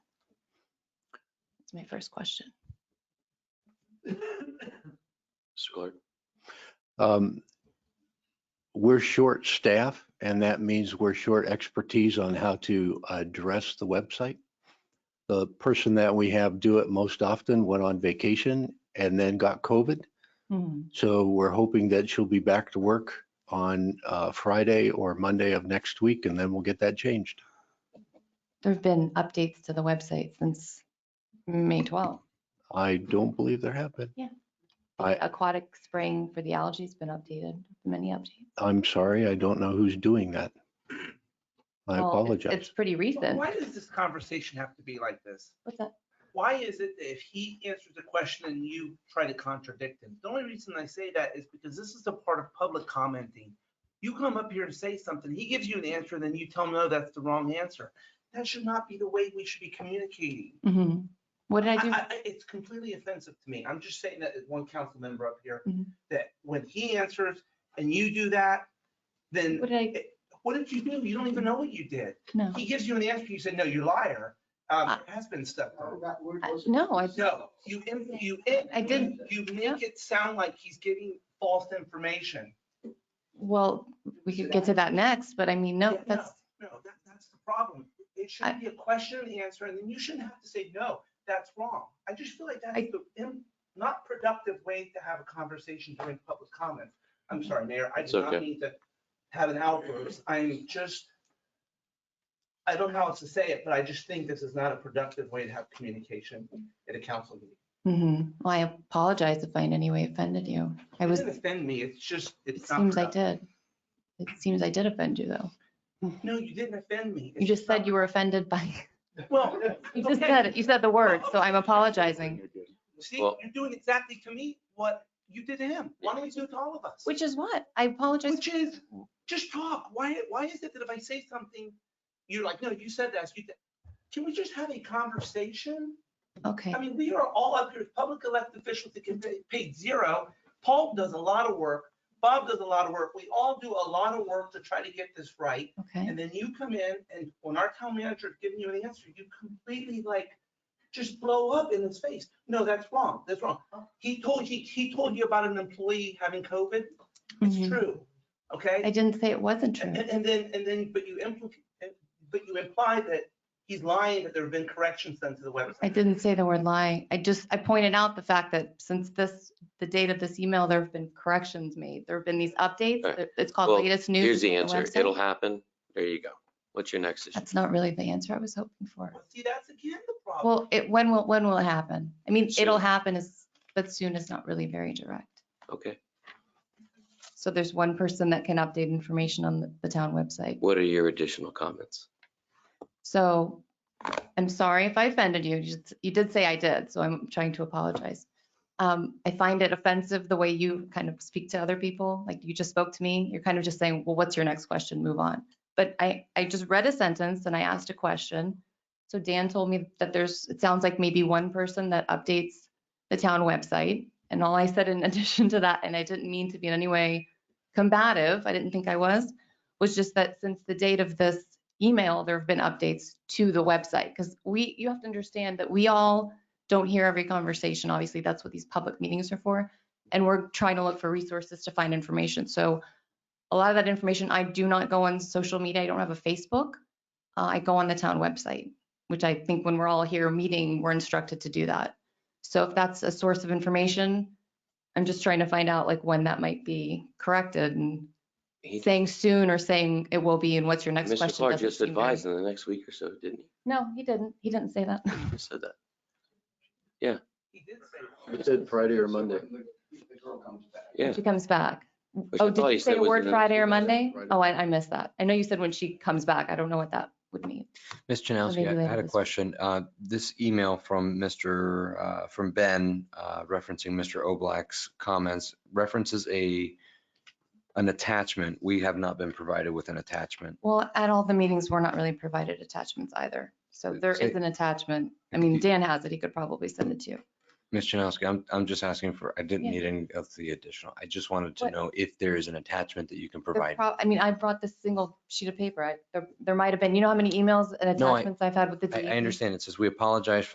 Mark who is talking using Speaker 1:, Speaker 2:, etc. Speaker 1: That's my first question.
Speaker 2: Mr. Clark. Um, We're short staff and that means we're short expertise on how to address the website. The person that we have do it most often went on vacation and then got COVID.
Speaker 1: Hmm.
Speaker 2: So we're hoping that she'll be back to work on uh, Friday or Monday of next week and then we'll get that changed.
Speaker 1: There've been updates to the website since May 12th.
Speaker 2: I don't believe there have been. I-
Speaker 1: The Aquatic spring for the algae's been updated, many updates.
Speaker 2: I'm sorry, I don't know who's doing that. I
Speaker 1: Well, it's- It's
Speaker 2: apologize.
Speaker 1: pretty
Speaker 3: But
Speaker 1: recent.
Speaker 3: Why does this conversation have to be like this?
Speaker 1: What's that?
Speaker 3: Why is it that if he answers a question and you try to contradict him? The only reason I say that is because this is a part of public commenting. You come up here and say something, he gives you an answer, then you tell him, no, that's the wrong answer. That should not be the way we should be communicating.
Speaker 1: Mhm. What did I do?
Speaker 3: It's completely offensive to me. I'm just saying that as one council member up here,
Speaker 1: Mhm.
Speaker 3: that when he answers and you do that, then
Speaker 1: What did I,
Speaker 3: what did you do? You don't even know what you did.
Speaker 1: no.
Speaker 3: He gives you an answer, you say, no, you liar. Um,
Speaker 1: I-
Speaker 3: there has been stuff. done.
Speaker 1: I- No, I,
Speaker 3: No, you, in- you, in-
Speaker 1: I didn't.
Speaker 3: You
Speaker 1: Yeah.
Speaker 3: make it sound like he's giving false information.
Speaker 1: well, we could get to that next, but I mean,
Speaker 3: Yeah,
Speaker 1: no,
Speaker 3: no.
Speaker 1: that's,
Speaker 3: No, that, that's the problem. It
Speaker 1: I-
Speaker 3: should be a question and answer, and then you shouldn't have to say, no, that's wrong. I just feel like
Speaker 1: I-
Speaker 3: that's the im- not productive way to have a conversation during public comments. I'm sorry, Mayor, I
Speaker 4: It's
Speaker 3: do not
Speaker 4: okay.
Speaker 3: mean to have an outburst. I'm just, I don't know how else to say it, but I just think this is not a productive way to have communication at a council meeting.
Speaker 1: mhm. Well, I apologize if I in any way offended you. I
Speaker 3: It
Speaker 1: was,
Speaker 3: doesn't offend me, it's just,
Speaker 1: it
Speaker 3: it's not
Speaker 1: seems I
Speaker 3: productive.
Speaker 1: did. It seems I did offend you though.
Speaker 3: No, you didn't offend me.
Speaker 1: You just said you were offended by,
Speaker 3: were. Well.
Speaker 1: you just
Speaker 3: okay.
Speaker 1: said, it. you said the word, so I'm apologizing.
Speaker 3: See,
Speaker 4: Well-
Speaker 3: you're doing exactly to me what you did to him. Why don't you do it to all of us?
Speaker 1: Which is what? I apologize.
Speaker 3: Which is, just talk. Why, why is it that if I say something, you're like, no, you said that, you, did-" can we just have a conversation?
Speaker 1: Okay,
Speaker 3: I mean, we are all up here, as public elected officials that get paid zero. Paul does a lot of work. Bob does a lot of work. We all do a lot of work to try to get this right.
Speaker 1: okay.
Speaker 3: And then you come in and when our town manager is giving you an answer, you completely like, just blow up in his face. No, that's wrong. That's wrong.
Speaker 1: Oh.
Speaker 3: He told you, he told you about an employee having COVID. It's
Speaker 1: Mhm.
Speaker 3: true.
Speaker 1: I
Speaker 3: Okay?
Speaker 1: didn't say it wasn't true.
Speaker 3: And, and then, and then, but you implicate, but you imply that he's lying, that there have been corrections done to the website.
Speaker 1: I didn't say the word lie. I just, I pointed out the fact that since this, the date of this email, there have been corrections made. There have been these updates.
Speaker 4: All right.
Speaker 1: It- It's called
Speaker 4: Well,
Speaker 1: latest news.
Speaker 4: Here's the
Speaker 1: on
Speaker 4: answer.
Speaker 1: website.
Speaker 4: It'll happen. There you go. What's your next issue?
Speaker 1: That's not really the answer I was hoping for.
Speaker 3: Well, See, that's again the problem.
Speaker 1: Well, it, when will, when will it happen? I mean, it'll
Speaker 4: Soon.
Speaker 1: happen is, but soon is not really very direct.
Speaker 4: Okay.
Speaker 1: So there's one person that can update information on the- the town website.
Speaker 4: What are your additional comments?
Speaker 1: So I'm sorry if I offended you. You just- You did say I did, so I'm trying to apologize. Um, I find it offensive the way you kind of speak to other people, like you just spoke to me. You're kind of just saying, well, what's your next question? Move on. But I, I just read a sentence and I asked a question. So Dan told me that there's, it sounds like maybe one person that updates the town website. And all I said in addition to that, and I didn't mean to be in any way combative, I didn't think I was, was just that since the date of this email, there have been updates to the website. Because we, you have to understand that we all don't hear every conversation. Obviously, that's what these public meetings are for. And we're trying to look for resources to find information. So a lot of that information, I do not go on social media. I don't have a Facebook. Uh, I go on the town website, which I think when we're all here meeting, we're instructed to do that. So if that's a source of information, I'm just trying to find out like when that might be corrected and
Speaker 4: He-
Speaker 1: saying soon or saying it will be and what's your next question?
Speaker 4: Mr. Clark
Speaker 1: doesn't
Speaker 4: just
Speaker 1: seem very-
Speaker 4: advised in the next week or so, didn't he?
Speaker 1: No, he didn't. He didn't say that.
Speaker 4: He just said that.
Speaker 3: He did say that.
Speaker 2: It said Friday or Monday.
Speaker 4: Yeah.
Speaker 1: She comes back.
Speaker 4: Which I
Speaker 1: Oh,
Speaker 4: thought
Speaker 1: did
Speaker 4: he
Speaker 1: you
Speaker 4: said
Speaker 1: say a
Speaker 4: was
Speaker 1: word
Speaker 4: in the-
Speaker 1: Friday or Monday?
Speaker 2: Friday.
Speaker 1: Oh, I, I missed that. I know you said when she comes back. I don't know what that would mean.
Speaker 5: Ms. Janowski,
Speaker 1: maybe
Speaker 5: I
Speaker 1: later
Speaker 5: had a
Speaker 1: this week.
Speaker 5: question. Uh, This email from Mr., uh, from Ben uh, referencing Mr. Oblak's comments references a, an attachment. We have not been provided with an attachment.
Speaker 1: Well, at all the meetings, we're not really provided attachments either. So there
Speaker 5: Say-
Speaker 1: is an attachment. I mean, Dan has it. He could probably send it to you.
Speaker 5: Ms. Janowski, I'm, I'm just asking for, I didn't
Speaker 1: Yeah.
Speaker 5: need any of the additional. I just wanted to
Speaker 1: What-
Speaker 5: know if there is an attachment that you can
Speaker 1: There
Speaker 5: provide.
Speaker 1: prob- I mean, I brought this single sheet of paper. I, there, there might have been, you know how many emails and
Speaker 5: No, I-
Speaker 1: attachments I've had with the E
Speaker 5: I,
Speaker 1: DEP?
Speaker 5: I understand. It says, we apologize for